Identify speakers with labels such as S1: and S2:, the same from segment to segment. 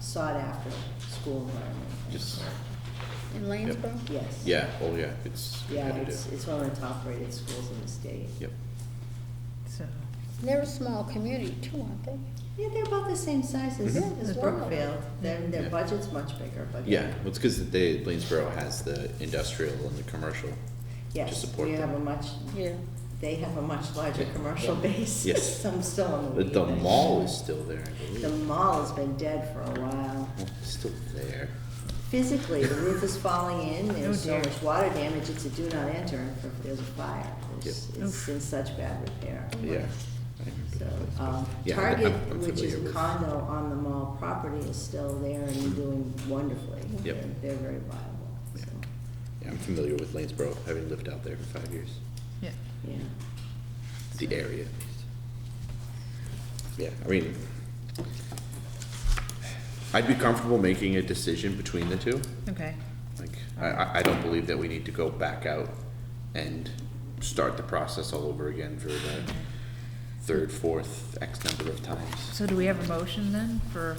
S1: sought-after uh, school environment.
S2: Just,
S3: In Lanesboro?
S1: Yes.
S2: yeah, oh yeah, it's
S1: Yeah,
S2: competitive.
S1: it's, it's one of the top-rated schools in the state.
S2: Yep,
S4: So,
S3: They're a small community too, aren't they?
S1: Yeah, they're about the same size as,
S2: Mhm.
S1: as
S4: Yeah.
S1: Brookfield. Their,
S2: Yeah.
S1: their budget's much bigger, but.
S2: yeah, well, it's because they, Lanesboro has the industrial and the commercial.
S1: Yes,
S2: support
S1: we have a
S2: them.
S1: much,
S3: Yeah.
S1: they have a much larger
S2: Yeah.
S1: commercial base.
S2: Yes.
S1: Some still on the.
S2: But the
S1: weed.
S2: mall is still there, I
S1: Oh, The
S2: believe.
S1: mall has been dead for a while.
S2: Well, it's Still there.
S1: Physically, the roof is falling in, there's so
S4: dear.
S1: much water damage, it's a do not enter, and if there's a fire, it's,
S4: Yep.
S1: it's in such bad repair.
S2: Yeah.
S1: So, um,
S2: Yeah, I-
S1: Target,
S2: I'm- I'm
S1: which is
S2: familiar
S1: a
S2: with- Mm-hmm.
S1: condo on the mall property, is still there and doing wonderfully.
S2: Yep.
S1: They're- They're very viable,
S2: Yeah.
S1: so,
S2: Yeah, I'm familiar with Lanesboro, having lived out there for five years,
S4: yeah.
S1: yeah.
S2: the area. Yeah, I mean, I'd be comfortable making a decision between the two.
S4: Okay.
S2: Like, I, I, I don't believe that we need to go back out and start the process all over again for the third, fourth, X number of times.
S4: So do we have a motion then for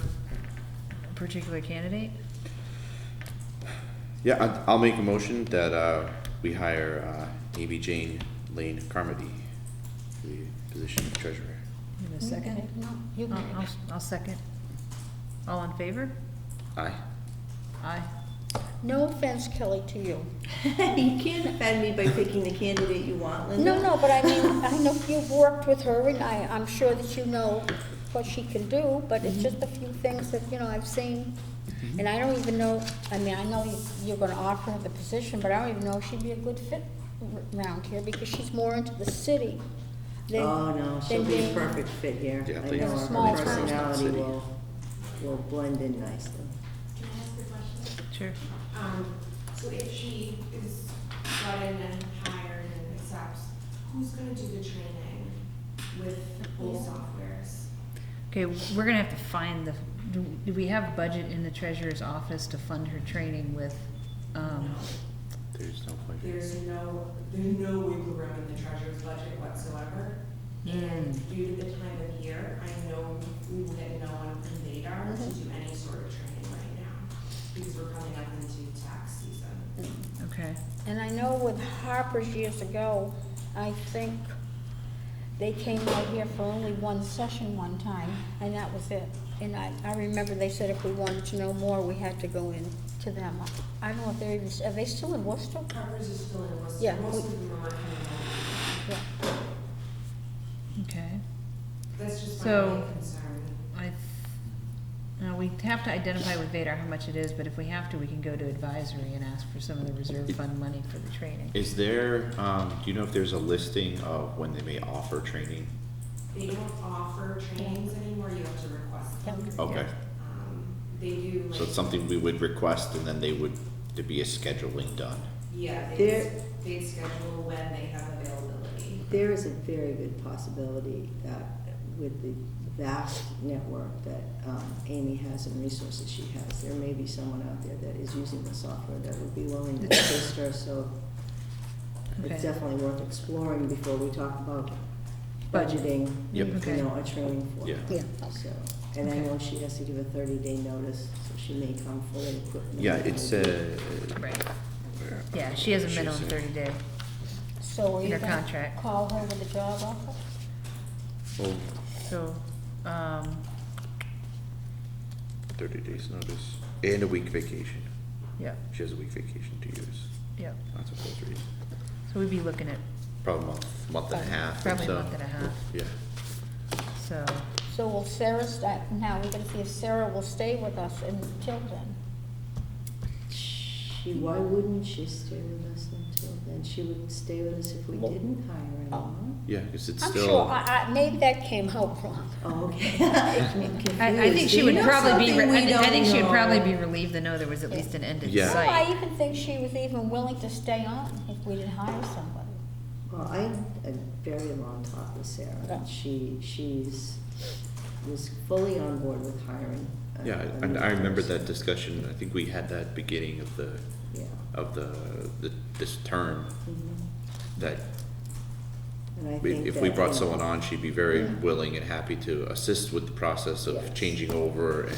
S4: a particular candidate?
S2: Yeah, I- I'll make a motion that, uh, we hire, uh, Amy Jane Lane Carmody for the position of treasurer.
S4: In a
S3: You got
S4: second?
S3: it. No, you
S4: I'll,
S3: got
S1: Uh-uh.
S4: I'll,
S3: it.
S4: I'll second. All in favor?
S2: Aye.
S4: Aye.
S3: No offense, Kelly, to you.
S1: You can't offend me by picking the candidate you want, Linda.
S3: No, no, but I mean, I know you've worked with her and I, I'm sure that you know what she can do, but
S1: Mm-hmm.
S3: it's just a few things that, you know, I've seen. And I don't even know, I mean, I know you- you're gonna offer her the position, but I don't even know if she'd be a good fit r- around here because she's more into the city than.
S1: Oh, no, she'll
S3: than
S1: be a
S3: being-
S1: perfect fit here.
S2: Yeah,
S1: I
S2: please.
S1: know her
S3: Small town.
S1: personality
S2: City.
S1: will, will blend in nicely.
S5: Can I ask a question?
S4: Sure.
S5: Um, so if she is brought in and hired and accepts, who's gonna do the training with both softwares?
S4: Okay, we're gonna have to find the, do, do we have budget in the treasurer's office to fund her training with, um,
S2: There's no point.
S5: There's no, there's no wiggle room in the treasurer's budget whatsoever. And due to the time of year, I know we will get no one from Vadar to do any sort of training right now, because we're coming up into tax season.
S4: okay.
S3: And I know with Harper's years ago, I think they came out here for only one session one time, and that was it. And I, I remember they said if we wanted to know more, we had to go in to them. I don't know if they're even, are they still in Worcester?
S5: Covers is still in Worcester,
S3: Yeah, we-
S5: most of them are coming home.
S3: Yeah.
S4: Okay.
S5: That's just my
S4: So-
S5: main concern.
S4: I, th- no, we have to identify with Vadar how much it is, but if we have to, we can go to advisory and ask for some of the reserve fund money for the training.
S2: Is there, um, do you know if there's a listing of when they may offer training?
S5: They don't offer trainings anymore, you have to request them.
S3: Yeah.
S2: Okay,
S5: Um, They do like.
S2: so it's something we would request and then they would, there'd be a scheduling done.
S5: Yeah, they,
S1: There-
S5: they schedule when they have availability.
S1: There is a very good possibility that with the vast network that um, Amy has and resources she has, there may be someone out there that is using the software that would be willing to assist her, so
S4: Okay.
S1: it's definitely worth exploring before we talk about budgeting, you
S2: Yep.
S1: know, a training for
S2: Yeah.
S1: her.
S3: Yeah.
S1: So, and I
S4: Okay.
S1: know she has to give a thirty-day notice, so she may come fully equipped.
S2: Yeah, it's, uh.
S4: Right,
S2: where-
S4: yeah, she has a
S2: She's
S4: minimum
S2: in-
S4: thirty day.
S3: So are
S4: In
S3: you
S4: her
S3: gonna
S4: contract.
S3: call her with a job offer?
S2: Well,
S4: So, um,
S2: thirty days notice and a week vacation.
S4: yeah,
S2: She has a week vacation to use.
S4: yeah,
S2: That's a full three.
S4: so we'd be looking at
S2: Probably a month, month and a half or
S4: probably a
S2: so.
S4: month and a half,
S2: Yeah.
S4: so,
S3: So will Sarah, sta- now we're gonna see if Sarah will stay with us until then.
S1: She, why wouldn't she stay with us until then? She would stay with us if we
S2: Well-
S1: didn't hire anyone.
S2: Yeah, cause it's
S3: I'm sure,
S2: still,
S3: I, I, maybe that came out wrong.
S1: Oh, okay. I'm confused.
S4: I, I think
S1: Do
S4: she
S1: you
S4: would
S1: know
S4: probably be,
S1: something
S4: re-
S1: we
S4: I think, I
S1: don't
S4: think she would probably
S1: know?
S4: be relieved to know there was at least an end in
S2: Yeah.
S3: No, I
S4: sight.
S3: even think she was even willing to stay on if we didn't hire somebody.
S1: Well, I had a very long talk with Sarah,
S3: Yeah.
S1: and she, she's, was fully on board with hiring. a-
S2: yeah,
S1: a
S2: and
S1: new
S2: I remember
S1: person.
S2: that discussion, I think we had that beginning of the,
S1: Yeah.
S2: of the, the, this term
S1: Mhm.
S2: that
S1: And I
S2: We-
S1: think
S2: If we
S1: that,
S2: brought
S1: you know,
S2: someone on, she'd be very
S1: Yeah.
S2: willing and happy to assist with the process
S1: Yes.
S2: of changing over and